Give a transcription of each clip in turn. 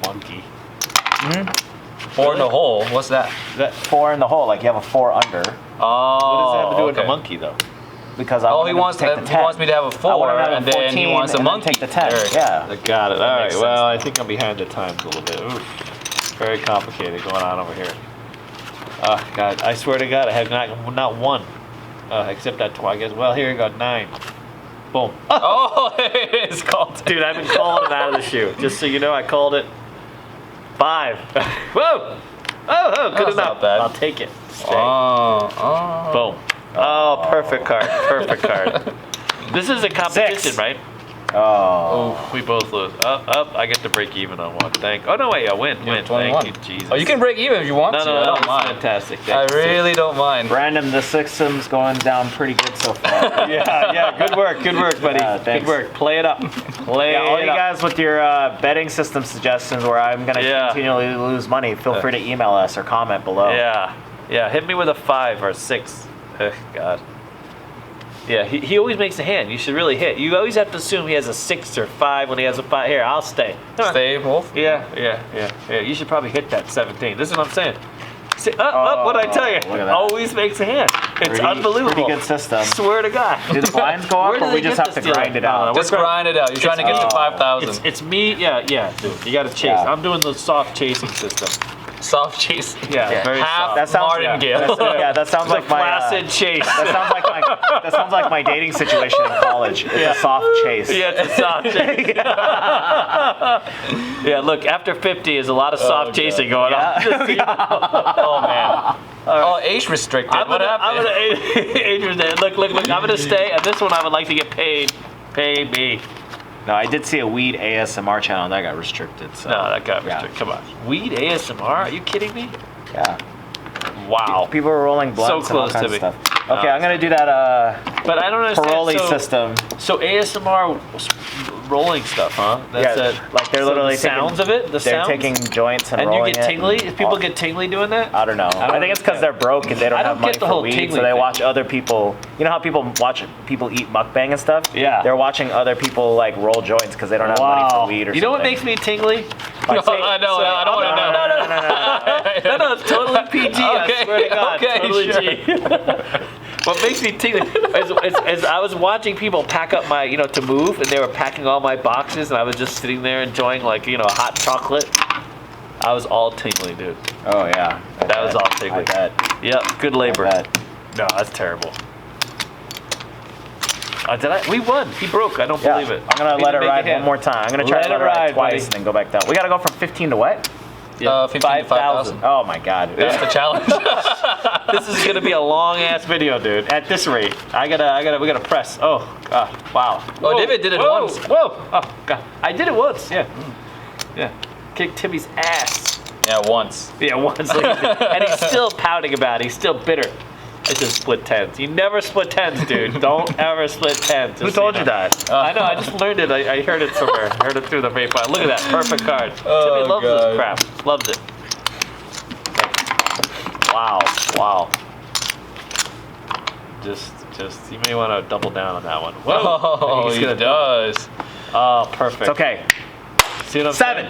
funky. Four in the hole. What's that? That, Four in the hole, like you have a four what Oh. under, does that have to do with okay. the monkey though? because I Oh, want he him to wants take that- the he 10. wants me to have a I want him four, to have a and then he 14, wants a and then monkey. Take the ten. There. Yeah. I got it. All right. makes sense. Well, I think I'm behind the times a little bit. Oof. Very complicated going on over here. Oh God! I swear to God, I have not not one, uh, except that tw- I guess. Well, here you go, nine. Boom. Oh, it is called. Dude, I've been calling it out of the shoe. Just so you know, I called it five. Whoa! Oh, oh, good That's enough. not bad. I'll take it. Stay. Oh, oh. Boom. Oh, perfect card. Perfect card. This is a competition, right? Oh. Oh, we both lose. Up, up. I get to break even on one. Thank. Oh no, wait. I win. win. Thank you, Jesus. Oh, you can break even if you want No, to. no, no. I That was don't mind. fantastic. I Thank you, sir. really don't mind. Brandon, the system's going down pretty good so far. Yeah, yeah. Good work. Good work, buddy. Yeah, good thanks. work. Play it up. Play yeah, all it you up. guys with your uh, betting system suggestions where I'm going to Yeah. continually lose money, feel free to email us or comment below. Yeah, yeah. Hit me with a five or a six. Ugh, God. Yeah, he, he always makes a hand. You should really hit. You always have to assume he has a six or five when he has a five. Here, I'll stay. Come on. Stay both. Yeah, yeah, yeah, yeah. You should probably hit that 17. This is what I'm saying. See, up, up, what I tell Oh, look you. at that. Always makes a hand. It's Pretty- unbelievable. Pretty good system. Swear to God. Do the blinds go Where up do or we they just get have to this deal? Uh, grind it No, out? no, Just grind it out. You're trying to get to Oh. five It's, thousand. it's me, yeah, yeah, dude. You gotta chase. Yeah. I'm doing the soft chasing system. Soft cheese. Yeah, very Half soft. That sounds- martingale. yeah, that's- yeah, that sounds It's like a my, uh, placid chase. That sounds like my that sounds like my dating situation in college. It's a soft chase. Yeah, it's a soft chase. yeah, look, after 50 is a lot of Oh, soft God. chasing going on. Just so you know. oh man. Oh, age restricted. I'm what gonna, happened? I'm gonna, Adrian's there. Look, look, look. I'm gonna stay. And this one, I would like to get paid. Pay me. No, I did see a weed ASMR channel and that got restricted. So No, that got Yeah. restricted. Come on. Weed ASMR? Are you kidding me? yeah. Wow. People were rolling blunts and all close to kinds me. of stuff. No, Okay, I'm gonna do that uh But I don't understand. parole so, system. So ASMR s- rolling stuff, huh? That's Yeah, it. like they're so literally the sounds taking- of it. The They're sounds. taking joints and, and you rolling get it tingly. and- If people get tingly doing that. I don't know. I, don't think it's because they're understand. broke and they don't, I don't have money get the for whole weed, so tingly they thing. watch other people. You know how people watch people eat mukbang and stuff? Yeah. They're watching other people like roll joints because they don't have money for weed or You know what something. makes me tingly? Like, No, say- Oh, I know. so- I don't want to know. no, no, no, no, no, no. Oh, No, no, it's totally PG. Okay, I swear to God, okay, totally sure. G. what makes me tingle is, is, is I was watching people pack up my, you know, to move, and they were packing all my boxes, and I was just sitting there enjoying like, you know, hot chocolate. I was all tingly, dude. Oh yeah. I That was bet. all tingly. I bet. Yep, good I labor. bet. No, that's terrible. Uh, did I? We won. He broke. I don't Yeah. believe it. I'm gonna He let it didn't make a ride hit. one more time. I'm gonna try Let to let it it ride, ride, twice buddy. and then go back down. We gotta go from 15 to what? Uh, 15 to 5,000. Oh my god. That's the challenge. this is gonna be a long ass video, dude. At this rate, I gotta, I gotta, we gotta press. Oh, God. wow. Oh, David did it whoa, once. Whoa! Oh, God. I did it once. Yeah. Yeah. Kicked Timmy's ass. yeah, once. Yeah, once. and he's still pouting about it. He's still bitter. It's just split tens. You never split tens, dude. Don't ever split tens. Who told you that? I know. I just learned it. I, I heard it somewhere. I heard it through the vape. Look at that. Perfect card. Oh, Timmy loves God. this crap. Loves it. Wow. Wow. Just, just, you may want to double down on that one. Whoa. I Oh, think he's he gonna- does. Oh, perfect. It's okay. See what I'm Seven.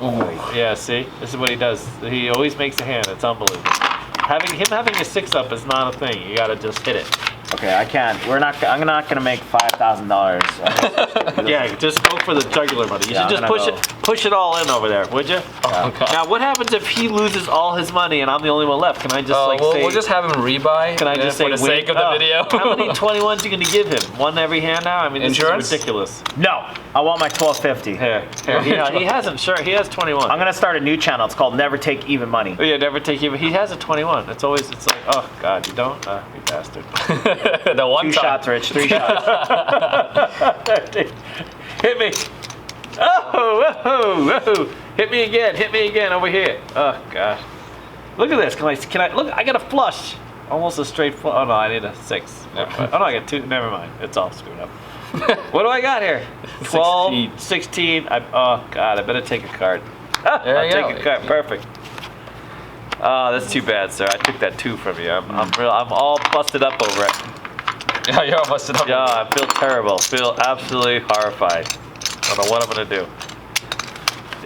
saying? Yeah, see, this is what he does. He always makes a hand. It's unbelievable. Having him having a six up is not a thing. You gotta just hit it. Okay, I can't. We're not. I'm not gonna make five thousand dollars. Yeah, just go for the jugular, buddy. You Yeah, should I'm just push gonna it, push it all in over there, would you? Oh, God. Now, what happens if he loses all his money and I'm the only one left? Can I just Uh, like we'll, say? we'll just have him rebuy. can I uh, just for say the win? sake of the Oh, video? how many 21s you gonna give him? One every hand now? I mean, this Insurance? is ridiculous. No, I want my 1250. Here, here. You know, he hasn't. Sure, he has 21. I'm gonna start a new channel. It's called Never Take Even Money. Oh, yeah, never take him. He has a 21. It's always, it's like, oh God, you don't, uh, you bastard. the one Two time. shots, Rich. Three shots. Hit me. Oh, whoa, whoa. Hit me again. Hit me again over here. Oh gosh. Look at this. Can I? Can I? Look, I got a flush. Almost a straight flush. Oh no, I need a six. Never mind. Oh no, I got two. Never mind. It's all screwed up. what do I got here? 12, 16. Sixteen. I, oh god, I better take a card. Ah, There I'll you take go. a card. Perfect. Oh, that's too bad, sir. I took that two from you. I'm, I'm real. I'm all busted up over it. Yeah, you're all busted up. Yeah, I feel terrible. Feel absolutely horrified. I don't know what I'm gonna do.